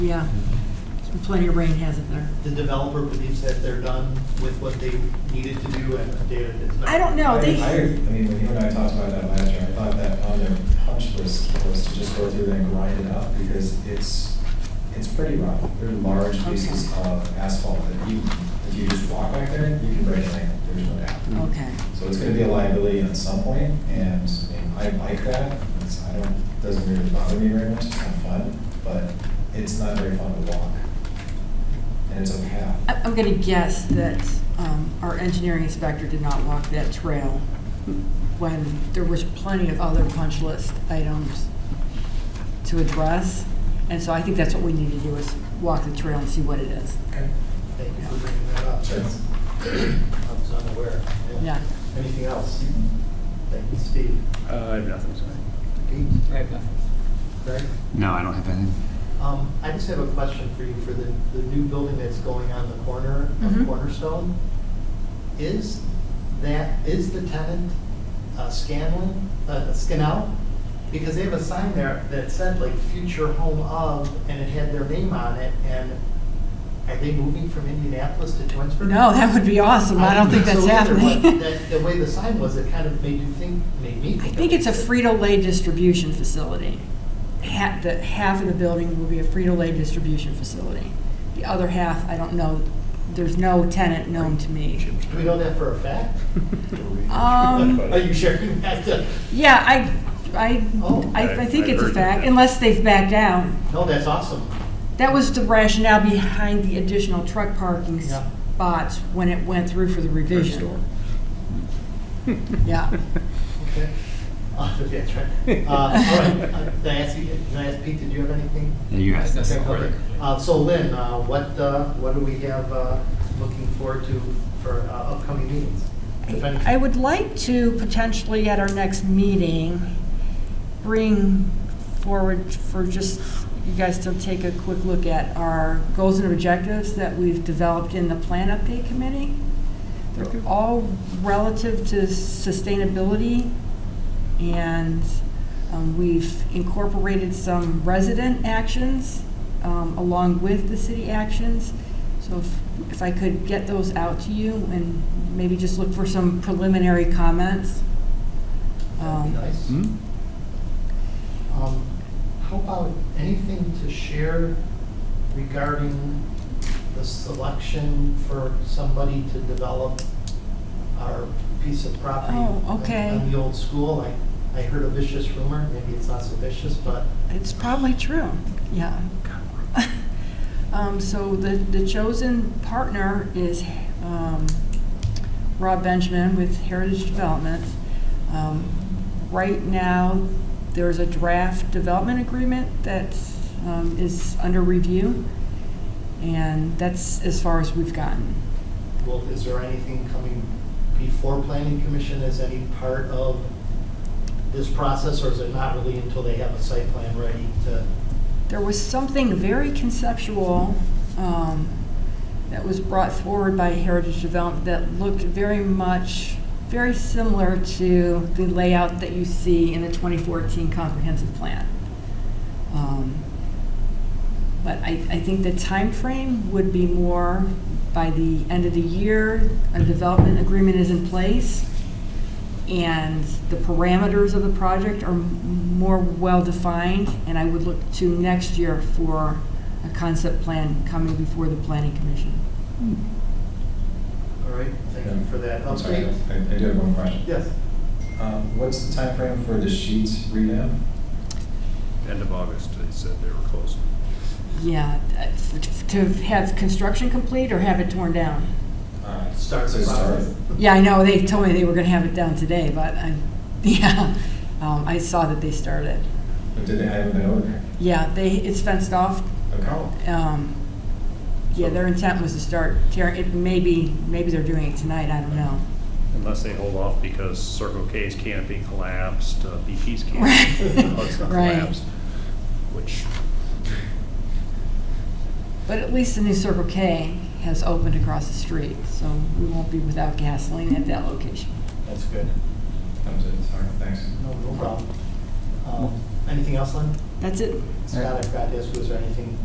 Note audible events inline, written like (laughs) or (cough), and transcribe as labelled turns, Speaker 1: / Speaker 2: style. Speaker 1: Yeah, plenty of rain has it there.
Speaker 2: The developer believes that they're done with what they needed to do and the data is not.
Speaker 1: I don't know,
Speaker 3: I, I,
Speaker 1: they,
Speaker 3: I mean, when you and I talked about that last year, I thought that on their punch list was to just go through and grind it up, because it's, it's pretty rough. There are large pieces of asphalt that you, if you just walk back there, you can break a leg, there's no doubt.
Speaker 2: Mm.
Speaker 1: okay.
Speaker 3: So it's gonna be a liability at some point, and I mean, I like that, it's, I don't, doesn't really bother me very much, it's kind of fun, but it's not very fun to walk. And it's a path.
Speaker 1: I- I'm going to guess that um, our engineering inspector did not walk that trail when there was plenty of other punch list items to address. And so I think that's what we need to do is walk the trail and see what it is.
Speaker 3: Okay.
Speaker 2: Thank you for bringing that up.
Speaker 3: Sure.
Speaker 2: I was unaware.
Speaker 1: Yeah.
Speaker 2: Anything else? Thank you, Steve.
Speaker 4: Uh, I have nothing, sorry.
Speaker 2: Pete? I have nothing. Greg?
Speaker 4: No, I don't have anything.
Speaker 2: Um, I just have a question for you for the, the new building that's going on the corner
Speaker 1: Mhm.
Speaker 2: of Cornerstone. Is that, is the tenant uh, Scanlon, uh, Scannell? Because they have a sign there that said like future home of, and it had their name on it, and are they moving from Indianapolis to Twinsburg?
Speaker 1: No, that would be awesome. I don't think that's
Speaker 2: so either, but
Speaker 1: happening.
Speaker 2: that- The way the sign was, it kind of made you think, made me
Speaker 1: I
Speaker 2: think.
Speaker 1: think
Speaker 2: of-
Speaker 1: it's a Frito-Lay distribution facility. Half, the, half of the building will be a Frito-Lay distribution facility. The other half, I don't know, there's no tenant known to me.
Speaker 2: Do we know that for a fact?
Speaker 1: Um,
Speaker 2: Are you sure? That's a-
Speaker 1: yeah, I, I,
Speaker 2: Oh.
Speaker 1: I, I think it's a
Speaker 4: I've heard
Speaker 1: fact,
Speaker 4: that.
Speaker 1: unless they've backed down.
Speaker 2: No, that's awesome.
Speaker 1: That was the rationale behind the additional truck parking
Speaker 2: Yeah.
Speaker 1: spots when it went through for the revision. Hmm. Yeah.
Speaker 2: Okay. Uh, that's right. Uh, All right, Uh, did I ask you, did I ask Pete, did you have anything?
Speaker 4: Yeah, you asked.
Speaker 2: Okay, okay. Uh, So Lynn, uh, what, uh, what do we have uh, looking forward to for uh, upcoming meetings? If any-
Speaker 1: I would like to potentially at our next meeting, bring forward for just you guys to take a quick look at our goals and objectives that we've developed in the plan update committee. They're all relative to sustainability and um, we've incorporated some resident actions um, along with the city actions. So if- if I could get those out to you and maybe just look for some preliminary comments.
Speaker 2: That'd be nice.
Speaker 4: Hmm?
Speaker 2: Um, How about anything to share regarding the selection for somebody to develop our piece of property?
Speaker 1: Oh,
Speaker 2: on-
Speaker 1: okay.
Speaker 2: On the old school, I, I heard a vicious rumor, maybe it's not so vicious, but
Speaker 1: It's probably true, yeah. (laughs) Um, So the, the chosen partner is um, Rob Benjamin with Heritage Development. Um, Right now, there's a draft development agreement that um, is under review, and that's as far as we've gotten.
Speaker 2: Well, is there anything coming before planning commission as any part of this process, or is it not really until they have a site plan ready to?
Speaker 1: There was something very conceptual um, that was brought forward by Heritage Development that looked very much, very similar to the layout that you see in the 2014 comprehensive plan. Um, But I, I think the time frame would be more by the end of the year, a development agreement is in place, and the parameters of the project are m- more well-defined, and I would look to next year for a concept plan coming before the planning commission.
Speaker 2: All right, thank you for that
Speaker 3: I'm sorry,
Speaker 2: update.
Speaker 3: I I do have one question.
Speaker 2: Yes,
Speaker 3: Um, What's the time frame for the sheet revamp?
Speaker 4: End of August, they said they were closing.
Speaker 1: Yeah, uh, f- to have construction complete or have it torn down?
Speaker 3: Uh,
Speaker 2: Start
Speaker 3: so
Speaker 2: the
Speaker 3: start.
Speaker 2: process.
Speaker 1: Yeah, I know, they told me they were gonna have it down today, but I, (laughs) yeah, um, I saw that they started.
Speaker 3: But did they have it over?
Speaker 1: Yeah, they, it's fenced off,
Speaker 3: Okay.
Speaker 1: um, yeah, their intent was to start tearing, it maybe, maybe they're doing it tonight, I don't know.
Speaker 4: Unless they hold off because Circle K's canopy collapsed, uh,
Speaker 1: (laughs)
Speaker 4: BP's
Speaker 1: Right.
Speaker 4: canopy Hugs
Speaker 1: Right.
Speaker 4: collapsed, which,
Speaker 1: But at least the new Circle K has opened across the street, so we won't be without gasoline at that location.
Speaker 2: (laughs) that's good.
Speaker 3: That was it, sorry, thanks.
Speaker 2: No, no problem. Um, Anything else, Lynn?
Speaker 1: That's it.
Speaker 2: Scott, I forgot to ask, was there anything